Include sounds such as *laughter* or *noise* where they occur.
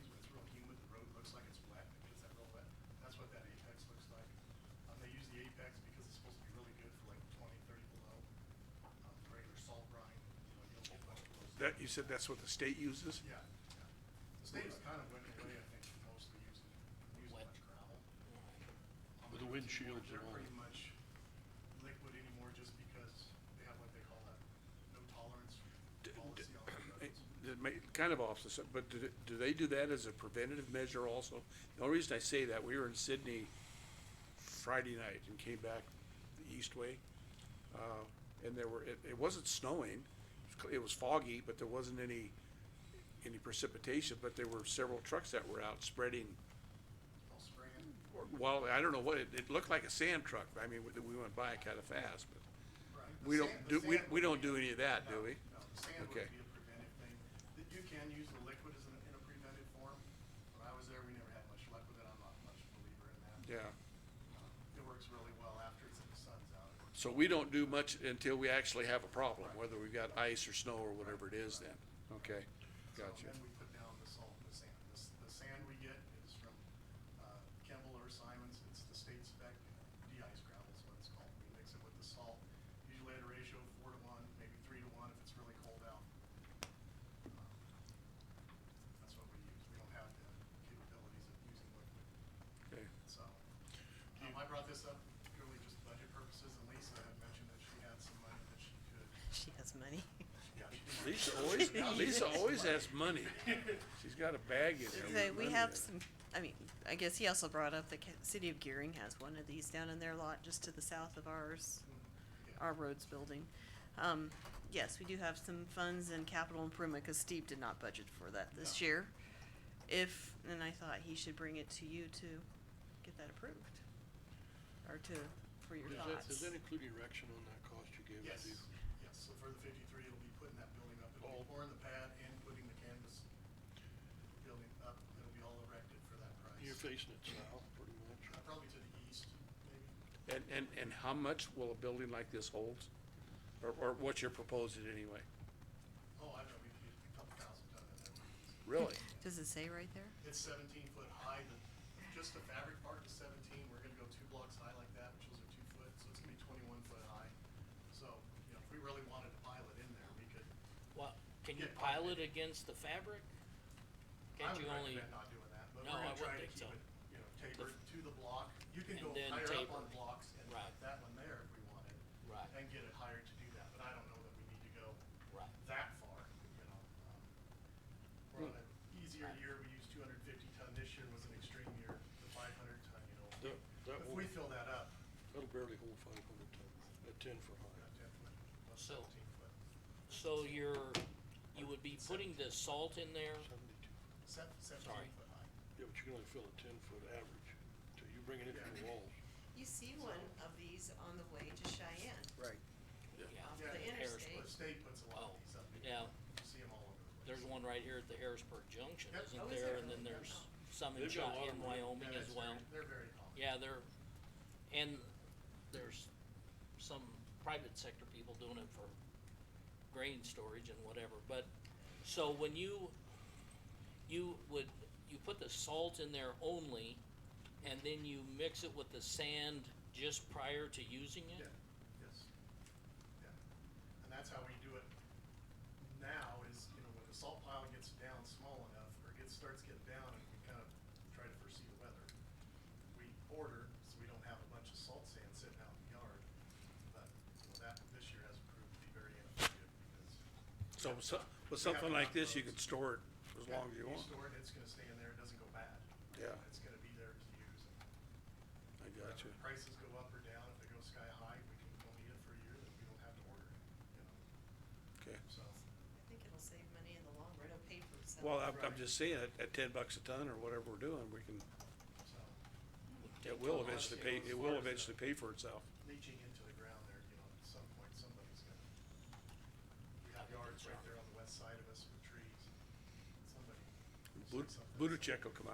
Um, um, said that's what the state uses? Yeah, yeah. The state's kind of went away, I think, from mostly using, using much gravel. Um, With the windshields They're and all. pretty much liquid anymore just because they have what they call a no tolerance D- d- *clears throat* policy on the Eh, roads. That may, kind of offsets, it, but do, th- do they do that as a preventative measure also? The only reason I say that, we were in Sydney Friday night and came back the east way. Uh, and there were, it, it wasn't snowing, it was cl- it was foggy, but there wasn't any, any precipitation, but there were several trucks that were out spreading They'll spray it. Well, I don't know what, it, it looked like a sand truck, I mean, we, we went by kinda fast, but Right. The we don't sand- the do, we, sand would we don't be- do any of that, do no, we? No, the sand would Okay. be a preventive thing. That you can use the liquid as an, in a preventive form. When I was there, we never had much luck with it. I'm not much believer in that. Yeah, Um, It works really well after it's, the sun's out. It works so we don't do much until we actually have a problem, whether we've got ice or snow or whatever it is then, okay, So gotcha. Then we put down the salt and the sand. The, s- the sand we get is from, uh, Kemble or Simons. It's the state spec, de-ice gravel is what it's called. We mix it with the salt, usually at a ratio of four to one, maybe three to one if it's really cold out. Um, That's what we use. We don't have the capabilities of using liquid, Okay. so. Um, I brought this up purely just budget purposes and Lisa had mentioned that she had some money that she could, *laughs* She has money. yeah, she didn't Lisa always, *laughs* Lisa always has money, she's got a bag in there. Okay, with we money in have it. some, I mean, I guess he also brought up the ca- city of Gearing has one of these down in their lot just to the south of ours, our roads building. Um, yes, we do have some funds in capital improvement, cause Steve did not budget for that this No. year. If, and I thought he should bring it to you to get that approved, or to, for your Does that, does thoughts. that include erection on that cost you gave? Yes, Steve? yes, so for the fifty-three, it'll be putting that building up, it'll All- be pouring the pad and putting the canvas building up, it'll be all erected for that price. You're facing it south, pretty Uh, much. Probably to the east, maybe, And, and, and how much will a building like this hold? Or, or what you're proposing anyway? oh, I don't know, we could get a couple thousand ton of that. Really? Does it say right there? It's seventeen foot high, the, just the fabric part is seventeen, we're gonna go two blocks high like that, which is a two foot, so it's gonna be twenty-one foot high. So, you know, if we really wanted to pile it in there, we could, Well, can you Yeah. pile it against the fabric? I Can't would you only, recommend not doing that, but we're No, I gonna try to wouldn't keep think so. it, you know, tapered to the block. You can And go then higher up taper. on blocks and Right. like that one there if we wanted. Right. And get it higher to do that, but I don't know that we need to go Right. that far, you know. um, We're on an easier year, we used two hundred and fifty ton, this year was an extreme year, the five hundred ton, you know. That, that If will, we fill that up, that'll barely hold five hundred ton, at ten for we're high. at ten foot, well, So- seventeen foot, so you're, you would be putting the salt in there? Seventy-two. seven, seventeen Sorry. foot high. Yeah, but you can only fill a ten foot average, so you bring it into Yeah. the walls. You see one of these on the way to Cheyenne, Right. Yeah, off Yeah, the the interstate. The state puts a lot of Oh, these up, you yeah, see them all over the place. there's one right here at the Harrisburg Junction, Yep. Oh, isn't is there? there? And then I don't there's know. some in They've got a lot Cheyenne, of them. Wyoming Yeah, as it's well. very- They're very common. Yeah, they're, and there's some private sector people doing it for grain storage and whatever, but, so when you, you would, you put the salt in there only, and then you mix it with the sand just prior to using Yeah, it? yes, yeah. And that's how we do it now is, you know, when the salt pile gets down small enough or gets, starts getting down and we kind of try to foresee the weather. We order, so we don't have a bunch of salt sand sitting out in the yard, but, you know, that this year has proved to be very ineffective because. *laughs* So, so, with something like this, you can store it as long as you want. store it, it's gonna stay in there, it doesn't go bad. Yeah. It's gonna be there to use and I If gotcha. Prices go up or down, if they go sky high, we can, we'll need it for a year, then we don't have to order it, you know, Okay. so. I think it'll save money in the long run on paper, so. Well, I'm, I'm just saying, at, at ten bucks a ton or whatever we're doing, we can, So it will eventually pay, it will eventually pay for itself. leaching into the ground there, you know, at some point, somebody's gonna. We have yards right there on the west side of us with trees, somebody. Bu- said something. Budacek will come out.